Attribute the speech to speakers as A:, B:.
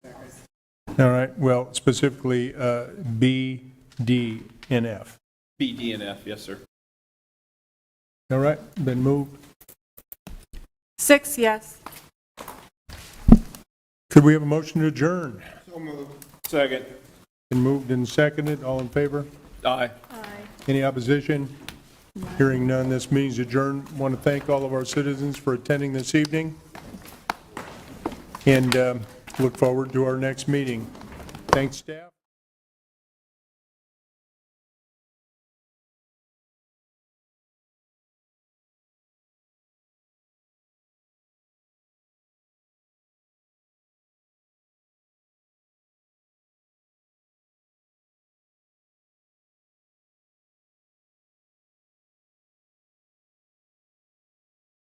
A: All right, well, specifically uh, B, D, and F.
B: B, D, and F, yes, sir.
A: All right, been moved.
C: Six yes.
A: Could we have a motion to adjourn?
B: Second.
A: Been moved and seconded, all in favor?
B: Aye.
A: Any opposition? Hearing none, this means adjourned. Want to thank all of our citizens for attending this evening, and um, look forward to our next meeting. Thanks, staff.